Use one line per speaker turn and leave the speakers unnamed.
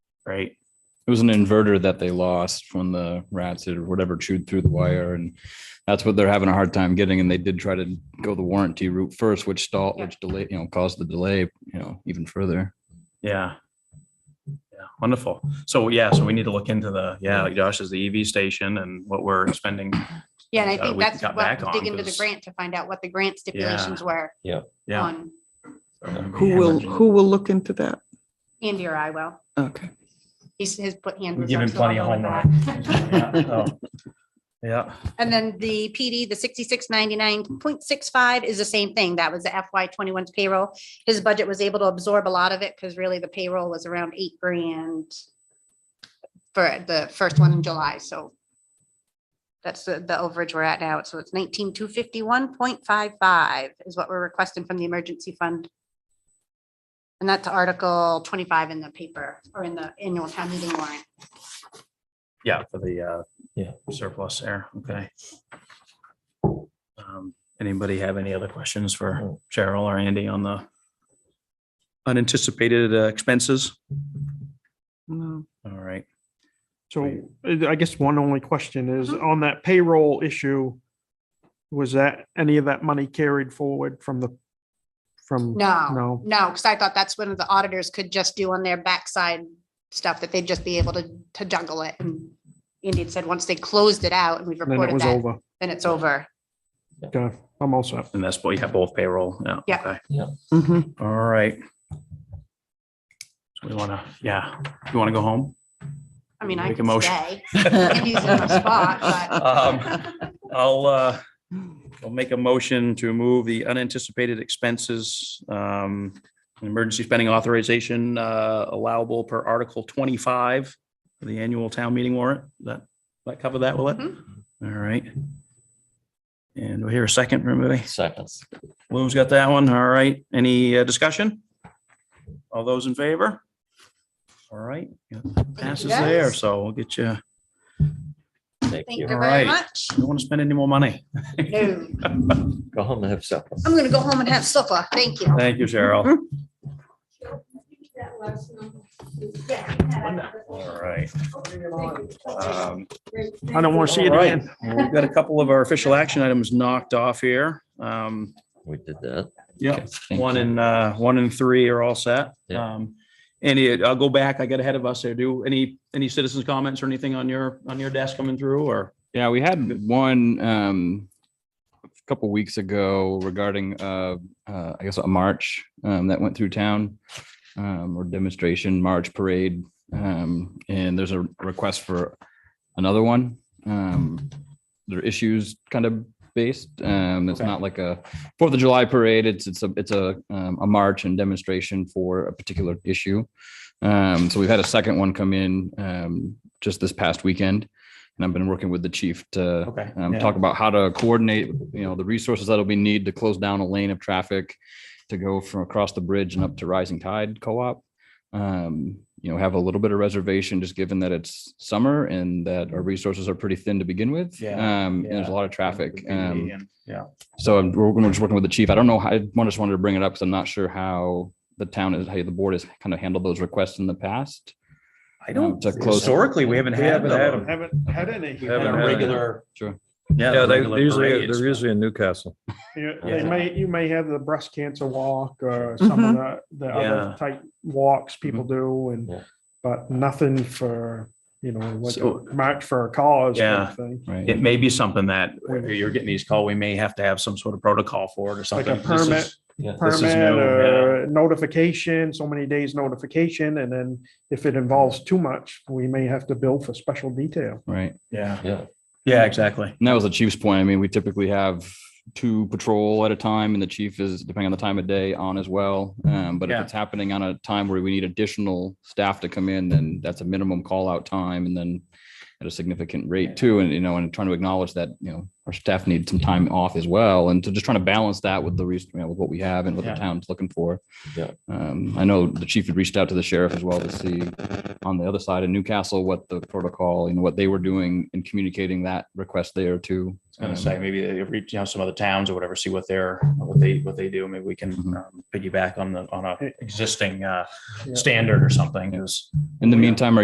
right?
It was an inverter that they lost when the rats or whatever chewed through the wire, and that's what they're having a hard time getting. And they did try to go the warranty route first, which stalled,
Yeah.
which delayed, you know, caused the delay, you know, even further.
Yeah. Yeah, wonderful. So yeah, so we need to look into the, yeah, like Josh is the EV station and what we're spending.
Yeah, and I
Uh,
think
we
that's
got back
what, dig
on
into the
'cause-
grant to find out what the grant stipulations were
Yeah.
on
Who will, who will look into that?
Andy or I will.
Okay.
He's, his put hand.
We
was
give
up,
him
so
plenty
I'll
of
go
homework.
with
Yeah,
that.
so- Yeah,
And then the PD, the sixty-six ninety-nine point six-five is the same thing. That was the FY 21s payroll. His budget was able to absorb a lot of it because really the payroll was around eight grand for the first one in July, so that's the, the overage we're at now. So it's nineteen two fifty-one point five-five is what we're requesting from the emergency fund. And that's Article twenty-five in the paper or in the annual town meeting warrant.
yeah, for the, uh,
Yeah.
surplus there, okay. Um, Anybody have any other questions for Cheryl or Andy on the unanticipated uh, expenses?
No.
All right,
So uh, I guess one only question is
Uh-huh.
on that payroll issue. Was that any of that money carried forward from the, from?
No,
No.
no, because I thought that's when the auditors could just do on their backside stuff, that they'd just be able to, to juggle it. And Andy had said, once they closed it out and we've
Then it
reported
was
that,
over.
then it's over.
Okay, I'm all set.
and that's what you have both payroll, yeah.
Yeah.
okay.
Mhm.
All right. So we want to, yeah, you want to go home?
I mean, I
Make a
can
motion.
stay. Andy's in my spot, but
Um, I'll, uh, I'll make a motion to move the unanticipated expenses, um, and emergency spending authorization, uh, allowable per Article twenty-five of the annual town meeting warrant. That, that cover that, will it? All right. And we'll hear a second from everybody.
Seconds.
Lou's got that one. All right. Any uh, discussion? All those in favor? All right. Passes
guys.
there, so we'll get you,
thank
Thank
you
you.
very
Alright.
much.
don't want to spend any more money.
No,
Go home and have supper.
I'm gonna go home and have supper. Thank you.
Thank you, Cheryl. All right. Um,
I don't want to see it
All right.
again.
We've got a couple of our official action items knocked off here. Um,
We did that.
yeah,
Okay, thank
one
you.
and, uh, one and three are all set.
Yeah.
Um, any, I'll go back. I got ahead of us there. Do any, any citizens comments or anything on your, on your desk coming through or?
Yeah, we had one um a couple weeks ago regarding uh, uh I guess a march um that went through town um or demonstration march parade. Um and there's a request for another one. Um they're issues kind of based. Um it's
Okay.
not like a Fourth of July parade. It's it's a it's a um, a march and demonstration for a particular issue. Um so we've had a second one come in um just this past weekend. And I've been working with the chief to
Okay.
um, talk about how to coordinate, you know, the resources that'll be need to close down a lane of traffic to go from across the bridge and up to Rising Tide Co-op. Um, you know, have a little bit of reservation, just given that it's summer and that our resources are pretty thin to begin with.
Yeah,
Um, and there's a
yeah.
lot of traffic. Um,
Yeah.
so I'm, we're we're just working with the chief. I don't know. how- I just wanted to bring it up because I'm not sure how the town is, how the board has kind of handled those requests in the past.
I
um,
don't,
to close-
historically, we haven't
We
had
haven't had
them.
them.
Haven't had any.
Haven't had
a
it.
regular.
Sure.
Yeah, they
regular
they're usually,
parades.
they're usually in Newcastle.
You- They
Yeah.
may, you may have the breast cancer walk or some of the, the
Yeah. Mm-hmm.
other type walks people do
Yeah.
and, but nothing for, you know, like
So-
a march for a cause kind
Yeah.
of thing.
Right.
It may be something that you're getting these call, we may have to have some sort of protocol for it or
Like
something.
a
This is-
permit,
Yeah.
This is
permit
new,
or notification, so many days notification, and then if it involves too much, we may have to bill for special detail.
Right.
Yeah,
Yeah.
yeah, exactly.
And that was the chief's point. I mean, we typically have two patrol at a time and the chief is, depending on the time of day, on as well. Um, but
Mm-hmm.
if
Yeah.
it's happening on a time where we need additional staff to come in, then that's a minimum call out time and then at a significant rate too. And, you know, and trying to acknowledge that, you know, our staff need some time off as well. And to just trying to balance that with the reason, you know, with what we have and what the
Yeah.
town's looking for.
Yeah.
Um, I know the chief had reached out to the sheriff as well to see on the other side in Newcastle, what the protocol, you know, what they were doing and communicating that request there too.
I was gonna
Um,
say, maybe they reach out to some other towns or whatever, see what they're, what they, what they do. Maybe we can
Mhm.
um, piggyback on the, on a existing uh,
Yeah.
standard or something, 'cause
In the meantime, are